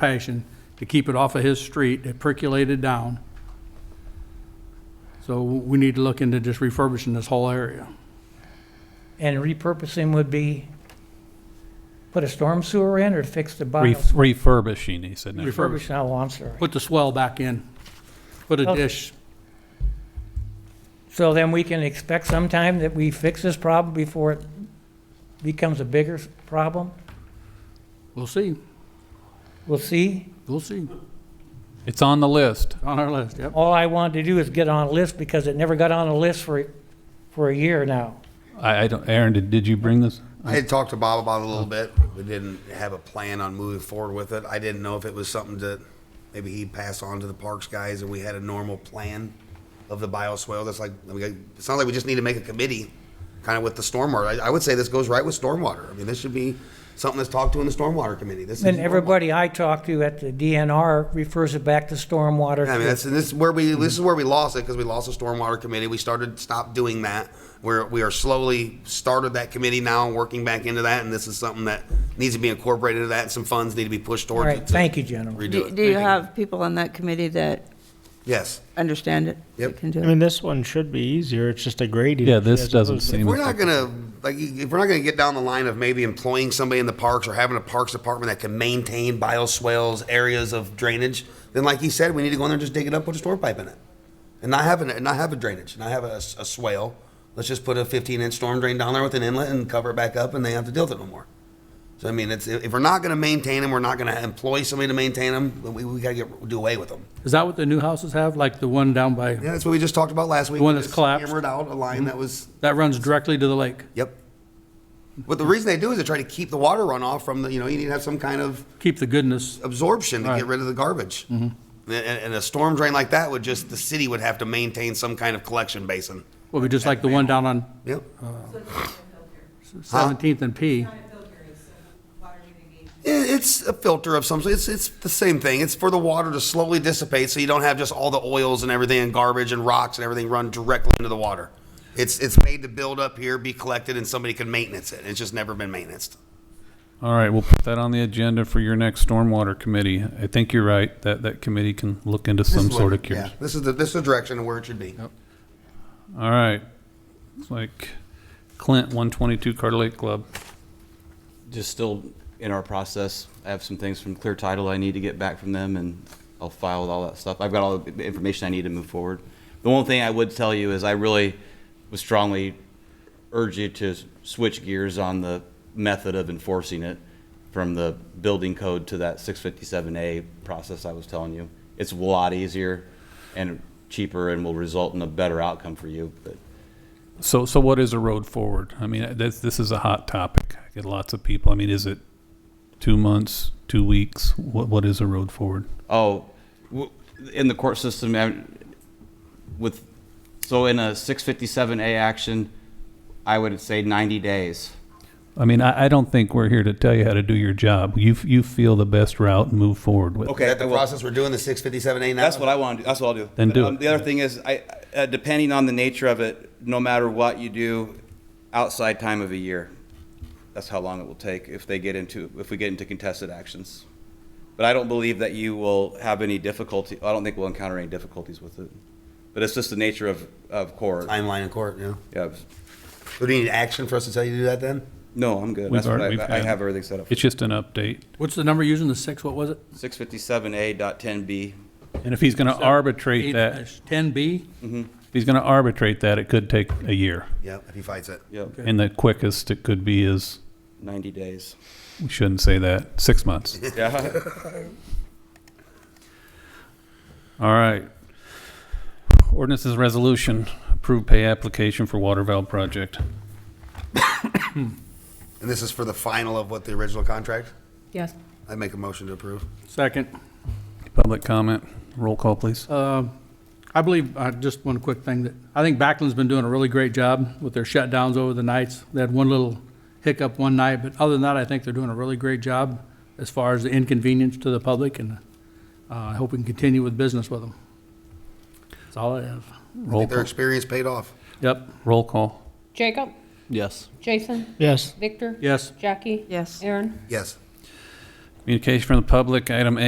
passion to keep it off of his street that percolated down. So we need to look into just refurbishing this whole area. And repurposing would be put a storm sewer in or fix the Ref- bios? Refurbishing, he said. Refurb- no. Refurbish, oh, I'm sorry. Put the swell back in, put a Okay. dish, So then we can expect sometime that we fix this problem before it becomes a bigger s- problem? we'll see, We'll see. we'll see, It's on the list. on our list, yep. All I wanted to do is get on a list because it never got on a list for, for a year now. I, I don't, Aaron, did, did you bring this? I had talked to Bob about it a little bit. We didn't have a plan on moving forward with it. I didn't know if it was something that maybe he'd pass on to the parks guys and we had a normal plan of the bioswale. That's like, we got- it sounds like we just need to make a committee, kind of with the stormwater. I, I would say this goes right with stormwater. I mean, this should be something that's talked to in the stormwater committee. This is. And everybody I talk to at the DNR refers it back to stormwater. Yeah, I mean, that's, and this is where we, this is where we lost it, because we lost the stormwater committee, we started, stopped doing that. We're, we are slowly started that committee now, and working back into that, and this is something that needs to be incorporated into that, and some funds need to be pushed All towards right, it. to thank you, gentlemen. redo Do it. do you have people on that committee that Yes. understand it? that Yep. Can do I it? mean, this one should be easier. It's just a grading. Yeah, issue this as doesn't opposed to- seem. If we're not gonna, like, if we're not gonna get down the line of maybe employing somebody in the parks or having a parks department that can maintain bioswales, areas of drainage, then like he said, we need to go in there and just dig it up, put a storm pipe in it. And not have, an- not have a drainage, not have a, s- a swale. Let's just put a fifteen inch storm drain down there with an inlet and cover it back up and they have to deal with it no more. So I mean, it's, if we're not gonna maintain them, we're not gonna employ somebody to maintain them, we, we gotta get, do away with them. Is that what the new houses have, like the one down by, Yeah, that's what we just talked about last week. The one that's Just collapsed? Hammered out a line that was that runs directly to the lake? Yep. But the reason they do is they try to keep the water runoff from the, you know, you need to have some kind of Keep the goodness, absorption to Right. get rid of the garbage. And, Mm-hmm. and a storm drain like that would just, the city would have to maintain some kind of collection basin. will be just like the one down on Yep. Seventeenth and P. I- It's a filter of some, sort. it's, it's the same thing. It's for the water to slowly dissipate so you don't have just all the oils and everything and garbage and rocks and everything run directly into the water. It's, it's made to build up here, be collected, and somebody can maintenance it. It's just never been maintained. All right, we'll put that on the agenda for your next stormwater committee. I think you're right, that, that committee can look into some sort of Yeah, cures. this is the, this is the direction of where it should be. All right. It's like Clint, one twenty-two Carter Lake Club. just still in our process. I have some things from Clear Title I need to get back from them, and I'll file with all that stuff. I've got all the information I need to move forward. The one thing I would tell you is I really would strongly urge you to switch gears on the method of enforcing it from the building code to that 657A process I was telling you. It's a lot easier and cheaper and will result in a better outcome for you, but So, so what is a road forward? I mean, this, this is a hot topic. I get lots of people. I mean, is it two months, two weeks? What, what is a road forward? Oh, w- in the court system, I- with, so in a 657A action, I would say 90 days. I mean, I, I don't think we're here to tell you how to do your job. You, f- you feel the best route and move forward with. it. Okay, Is that the well- process we're doing, the six fifty-seven A now? That's what I want to do, that's what I'll do. Then But, do um, it. The other thing is, I, uh, depending on the nature of it, no matter what you do, outside time of a year, that's how long it will take if they get into, if we get into contested actions. But I don't believe that you will have any difficulty, I don't think we'll encounter any difficulties with it. But it's just the nature of, of court. Timeline in court, yeah. Yeah. So do you need action for us to tell you to do that then? No, I'm good. We've That's what already- I, we've I had- have everything set up. It's just an update. What's the number using, the six, what was it? Six fifty-seven A dot ten B. And if he's going to arbitrate that, if Ten B? he's going to arbitrate that, it could take a year. Yeah, if he fights it. Yep, And the quickest it could be is, ninety days. we shouldn't say that, six months. Yeah. All right. Ordinances resolution, approved pay application for water valve project. And this is for the final of what the original contract? Yes. I make a motion to approve. Second. Public comment, roll call, please. Um, I believe, uh, just one quick thing, that, I think Backland's been doing a really great job with their shutdowns over the nights. They had one little hiccup one night, but other than that, I think they're doing a really great job as far as the inconvenience to the public, and uh, I hope we can continue with business with them. That's all I have. I Roll think their call. experience paid off. Yep, Roll call. Jacob, Yes. Jason, Yes. Victor, yes. Jackie, Yes. Aaron. Yes. Communication from the public, item A,